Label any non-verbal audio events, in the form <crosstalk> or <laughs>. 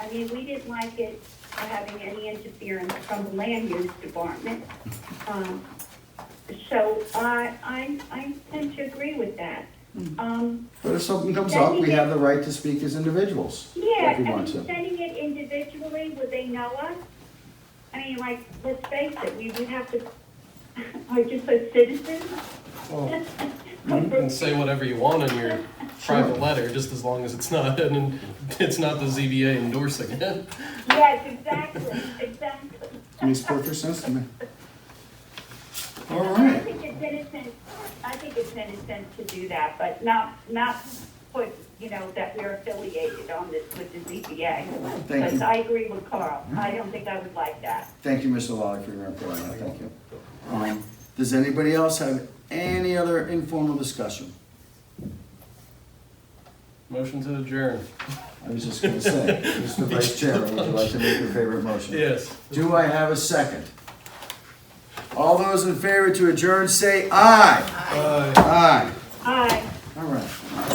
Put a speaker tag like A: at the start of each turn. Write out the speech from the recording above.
A: mean, we didn't like it for having any interference from the land use department. Um, So I, I, I tend to agree with that. Um,
B: But if something comes up, we have the right to speak as individuals.
A: yeah,
B: If
A: I
B: we
A: mean,
B: want to.
A: sending it individually, would they know us? I mean, like, let's face it, we would have to, <laughs> are just a citizen? <laughs>
C: Well, you can say whatever you want in your private letter, just as long as it's not, <laughs> and it's not the ZBA endorsing it.
A: Yes, exactly, exactly.
B: Makes perfect sense to me. All
A: I
B: right.
A: think it's innocent, I think it's innocent to do that, but not, not put, you know, that we're affiliated on this with the ZBA.
B: Thank
A: Because
B: you.
A: I agree with Carl, I don't think I would like that.
B: Thank you, Mr. Lally, for your input on that. Thank you. Um, Does anybody else have any other informal discussion?
C: Motion to adjourn.
B: I was just gonna say, <laughs> Mr. Vice Chair, would you like to make your favorite motion?
C: Yes.
B: Do I have a second? All those in favor to adjourn, say aye. Aye.
A: Aye.